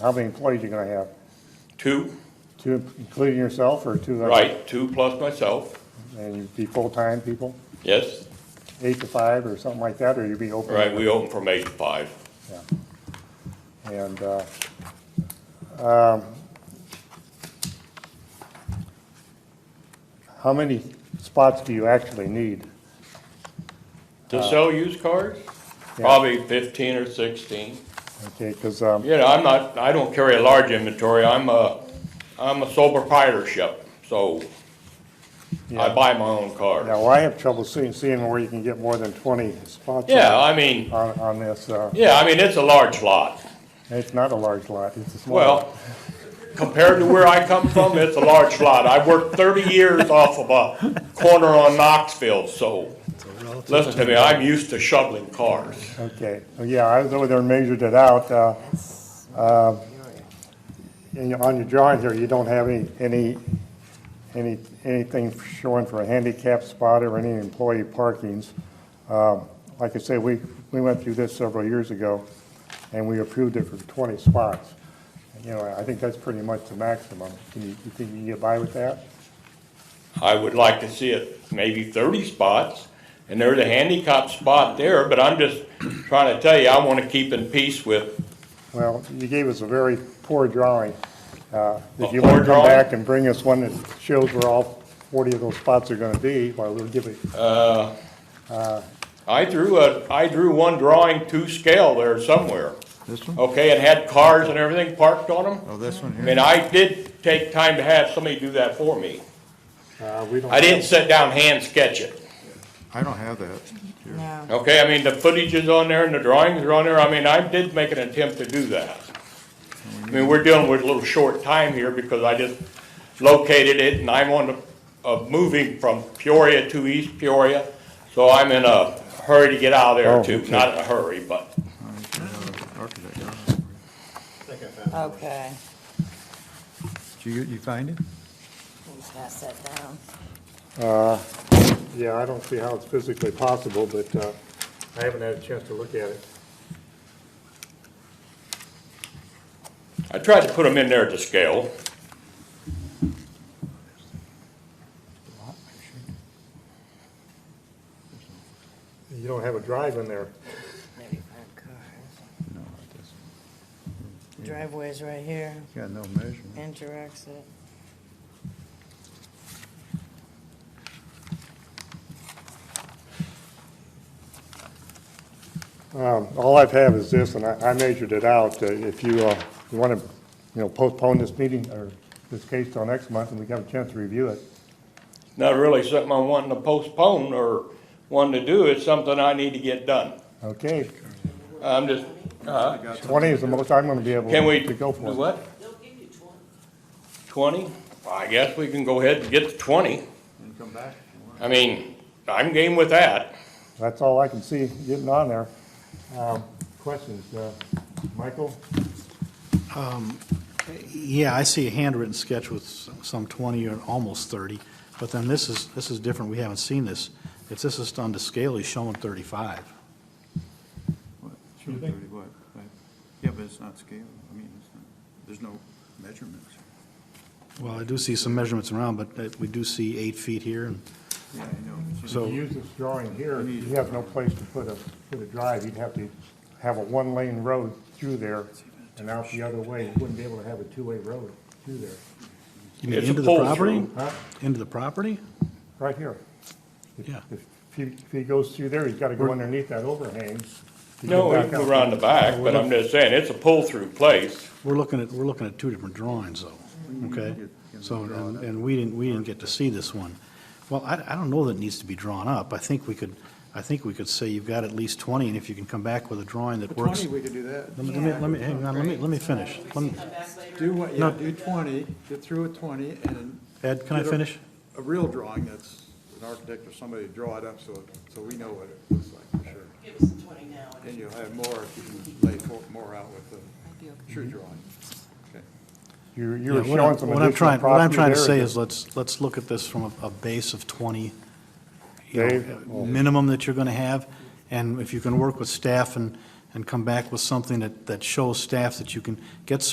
How many employees you gonna have? Two, Two, including yourself, or two? other- right, two plus myself, And you'd be full-time people, yes. eight to five or something like that, or you'd be open? Right, we open from eight to five. Yeah. And, uh, um, how many spots do you actually need? To sell used cars? Probably fifteen or sixteen. Okay, cause, um, You know, I'm not, I don't carry a large inventory, I'm a, I'm a sole proprietorship, so I Yeah. buy my own cars. now I have trouble seeing, seeing where you can get more than twenty spots. Yeah, I mean, On, on this, uh, yeah, I mean, it's a large lot. it's not a large lot, it's a small. lot. Well, compared to where I come from, it's a large lot. I worked thirty years off of a corner on Knoxville, so listen to me, I'm used to shoveling cars. Okay, Well, yeah, I was over there and measured it out. uh, uh, And on your drawing here, you don't have any, any, any, anything showing for a handicap spot or any employee parkings. Um, Like I say, we, we went through this several years ago, and we approved it for 20 spots. You know, I think that's pretty much the maximum. Can you, you think you can get by with that? I would like to see it maybe thirty spots, and there's a handicap spot there, but I'm just trying to tell you, I wanna keep in peace with, Well, you gave us a very poor drawing. Uh, If A you want poor to come drawing? back and bring us one that shows where all 40 of those spots are going to be, well, we'll give it, I drew a, I drew one drawing to scale there somewhere. This one? Okay, and had cars and everything parked on them. Oh, this one I here? mean, I did take time to have somebody do that for me. uh, we don't. I didn't sit down hand sketch it, I don't have that. here. No. okay? I mean, the footage is on there and the drawings are on there. I mean, I did make an attempt to do that. I mean, we're dealing with a little short time here because I just located it and I'm on the, uh, moving from Peoria to East Peoria. So I'm in a hurry to get out of there Oh, too, okay. not in a hurry, but, I don't have the architect. I don't have it. Okay. Did you, you find it? Let me pass that down. Yeah, I don't see how it's physically possible, but uh, I haven't had a chance to look at it. I tried to put them in there to scale. You don't have a drive in there. Thirty-five cars. No, it doesn't. Driveway's right here, Got no measurement. enter exit. Um, All I've have is this, and I I measured it out. Uh, If you want to, you know, postpone this meeting or this case till next month, and we have a chance to review it. Not really something I'm wanting to postpone or wanting to do. It's something I need to get done. Okay, I'm just, uh, 20 is the most I'm going to be able Can we? to go for. Do what? Twenty? I guess we can go ahead and get to twenty. And come back. I mean, I'm game with that. That's all I can see getting on there. Um, Questions, uh, Michael? Yeah, I see a handwritten sketch with s- some 20 or almost 30, but then this is, this is different, we haven't seen this. If this is done to scale, he's showing 35. Show thirty what? Right. Yeah, but it's not scale. I mean, it's not, there's no measurements. Well, I do see some measurements around, but uh, we do see eight feet here, and Yeah, I know. It's- So- If you use this drawing here, you have no place to put a, put a drive. You'd have to have a one-lane road through there and out the other way. You wouldn't be able to have a two-way road through there, you mean It's a into the pull-through. property? huh? Into the property? Right here. If- Yeah. If he, if he goes through there, he's got to go underneath that overhang. to get No, back we can out. go around the back, but I'm just saying, it's a pull-through place. We're looking at, we're looking at two different drawings, though, okay? So, and, and we didn't, we didn't get to see this one. Well, I, I don't know that it needs to be drawn up. I think we could, I think we could say you've got at least 20, and if you can come back with a drawing that But works. Twenty, we could do that. Let me, let me, let me, hang on, let me, let me finish. Let me- Do what, yeah, No. do twenty, get through with twenty and. Ed, can I get a- finish? A real drawing that's an architect or somebody to draw it up so, so we know what it looks like for sure. Give us the twenty now. And you'll have more if you can lay fo- more out with the true drawing. Okay. You're, Yeah, you're what I'm- showing some what I'm additional trying, what I'm property trying to there. say is, let's, let's look at this from a, a base of 20, you know, Dave? uh, minimum that you're going to have, and if you can work with staff and, and come back with something that, that shows staff that you can get